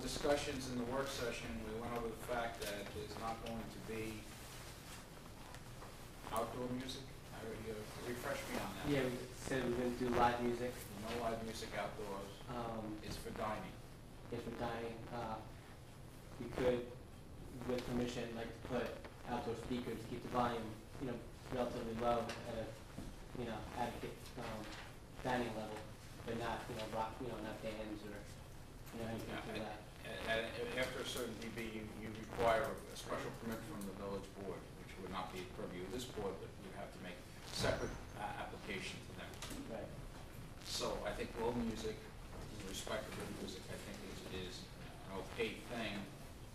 discussions in the work session, we went over the fact that there's not going to be outdoor music. I already, uh, refresh me on that. Yeah, we said we're gonna do live music, No live music outdoors, um, it's for dining. if we're dining, uh, we could, with permission, like to put outdoor speakers, keep the volume, you know, relatively low at a, you know, adequate, um, dining level, but not, you know, rock, you know, not bands or, you know, anything like that. A- a- a- after a certain dB, you, you require a special permit from the village board, which would not be purview of this board, but you have to make separate uh, application to them. Right. So I think world music, in respect to world music, I think is, is an opaque thing,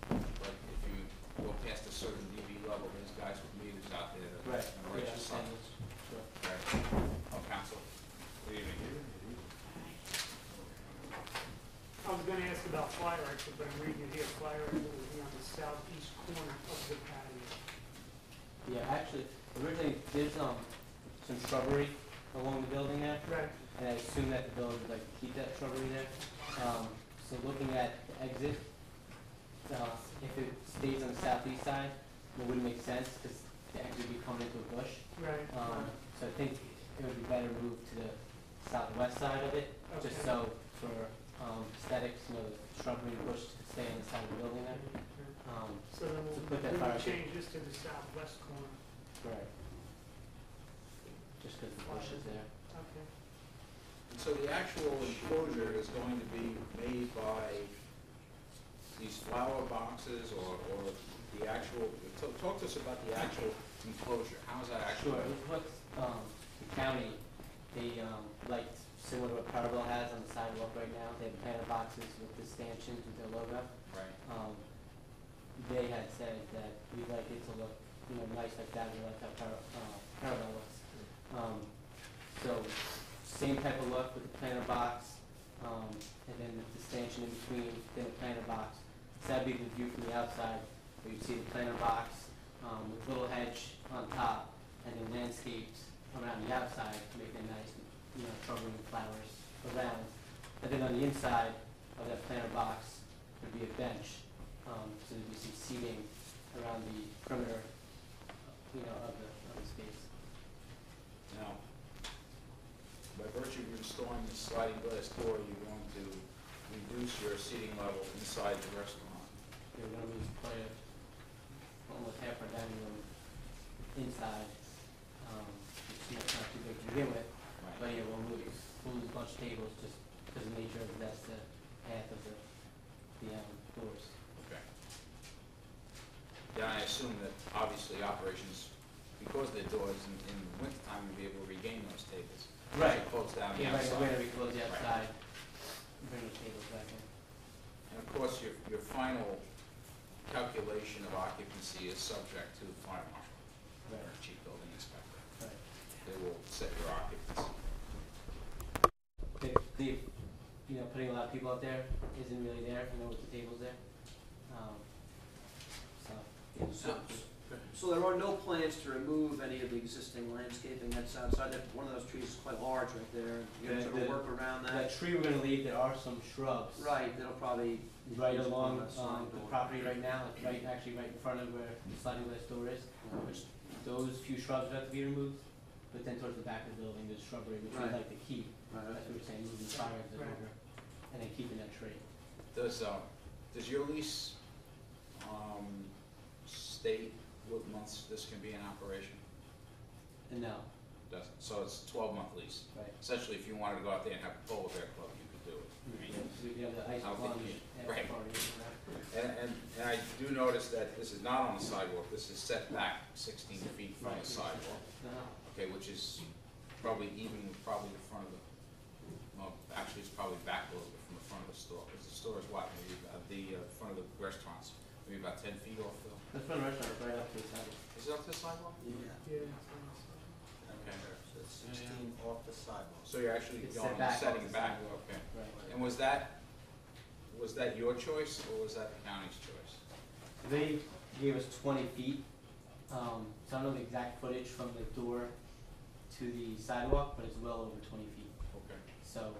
but if you go past a certain dB level, there's guys with meters out there that are Right, yeah, righteous. understand this, sure. Oh, council, good evening. I was gonna ask about fire exit, but I'm reading it here, fire exit will be on the southeast corner of the patio. Yeah, actually, originally, there's, um, some shrubbery along the building there, Right, and I assume that the building would like to keep that shrubbery there. Um, so looking at the exit, uh, if it stays on the southeast side, it wouldn't make sense because the exit would be coming into a bush. right. Um, so I think it would be better moved to the southwest side of it, just Okay. so for, um, aesthetics, you know, the shrubbery and bush could stay on the side of the building there. Um, So then So put that we'll, fire we'll exit- change this to the southwest corner. right. Just because the bush is there. Okay. And So the actual enclosure is going to be made by these flower boxes or, or the actual, talk- talk to us about the actual enclosure, how is that actually? Sure, it looks, um, the county, they, um, like, similar to what Powerball has on the sidewalk right now, they have planter boxes with the stanchions with their logo. Right, Um, they had said that we'd like it to look, you know, nice like that, we like how Power, uh, Powerball looks. Um, so, same type of look with the planter box, um, and then with the stanchion in between, then the planter box. So that'd be the view from the outside, where you'd see the planter box, um, with little hedge on top, and then landscapes around the outside, to make them nice, you know, shrubbery and flowers around. And then on the inside of that planter box, there'd be a bench, um, so there'd be some seating around the perimeter, you know, of the, of the space. now, by virtue of installing the sliding glass door, you're going to reduce your seating level inside the restaurant. You're gonna lose quite a, almost half our dining room inside, um, it's not not too big to begin with, but yeah, we'll lose, we'll lose a bunch of tables just because of the nature of that's the path of the, the, um, doors. Okay. Yeah, I assume that obviously operations, because they're doors in, in the wintertime, you'll be able to regain those tables. Right. Close down the Yeah, right, outside. we're gonna be closed the Right. outside, bring the tables back in. And of course, your, your final calculation of occupancy is subject to the fire marshal, Right, or chief building inspector. right. They will set your occupancy. the, the, you know, putting a lot of people out there isn't really there, you know, with the tables there. Um, so, yeah, So- um, So there are no plans to remove any of the existing landscaping that's outside, that, one of those trees is quite large right there, you can Yeah, sort of the- work around that. that tree we're gonna leave, there are some shrubs. Right, that'll probably. Right along, Side um, the door. property right now, like right, actually right in front of where the sliding glass door is, uh, which those few shrubs have to be removed. But then towards the back of the building, there's shrubbery, which we'd Right. like to keep, Right, that's what we're saying, moving the fire exit Right. over, and then keeping that tree. Does, um, does your lease, um, state what months this can be in operation? And no, Doesn't, so it's twelve month lease. right, Essentially, if you wanted to go out there and have a pole bear club, you could do it. I mean, we have the ice I'll plunge think you- and right. party, right? And, and, and I do notice that this is not on the sidewalk, this is set back sixteen feet from the sidewalk, No. okay, which is probably even with probably the front of the, well, actually, it's probably back a little bit from the front of the store, because the store is what, maybe, about- the, uh, front of the restaurants, maybe about ten feet off the, The front restaurant is right up to the side. is it up to the sidewalk? Yeah, Yeah. so- Okay. So it's sixteen off the sidewalk. So you're actually It's going, set back off setting the back, okay. Right. And was that, was that your choice, or was that the county's choice? They gave us twenty feet, um, so I don't know the exact footage from the door to the sidewalk, but it's well over twenty feet.